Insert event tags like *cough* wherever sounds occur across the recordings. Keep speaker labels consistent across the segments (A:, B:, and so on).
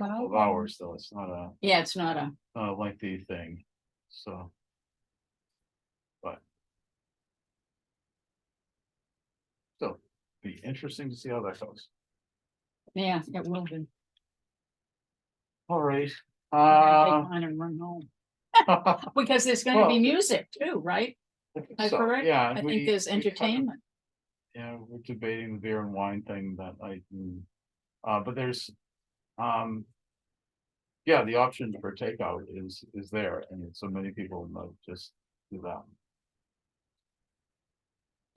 A: Wow.
B: of hours, though, it's not a,
A: Yeah, it's not a,
B: a lengthy thing, so. But. So, be interesting to see how that goes.
A: yeah, it will be.
B: All right,
A: I'm gonna
B: uh.
A: *laughs* take mine and run home.
B: I
A: Because there's gonna be
B: well,
A: music too, right?
B: think
A: I
B: so,
A: correct?
B: yeah,
A: I
B: we-
A: think there's
B: we kind of-
A: entertainment.
B: Yeah, we're debating the beer and wine thing that I, mm, uh, but there's, um. Yeah, the option for takeout is, is there, and so many people might just do that.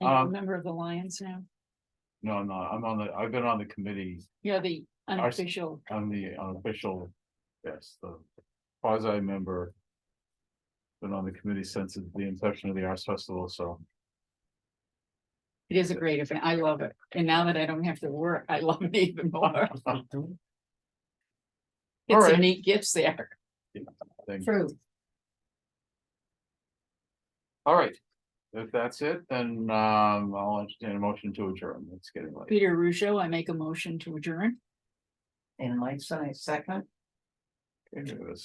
A: Are you a
B: um,
A: member of the Lions now?
B: No, I'm not, I'm on the, I've been on the committee
A: You're the
B: Ours-
A: unofficial,
B: I'm the unofficial, yes, the quasi member. Been on the committee since the inception of the Arts Festival, so
A: it is a great event. I love it. And now that I don't have to work, I love it even more. It's some
B: Alright.
A: neat gifts there.
B: thank you.
A: True.
B: All right, if that's it, then um I'll entertain a motion to adjourn. It's getting late.
A: Peter Russo, I make a motion to adjourn.
C: And Mike Science second,
B: Okay, we have a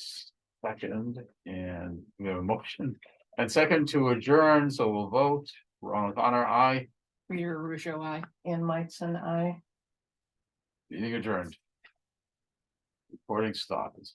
B: Second, and we have a motion and second to adjourn, so we'll vote. Ronald Connor, aye,
A: Peter Russo, I.
C: and Mike's and I.
B: meeting adjourned. Recording stopped.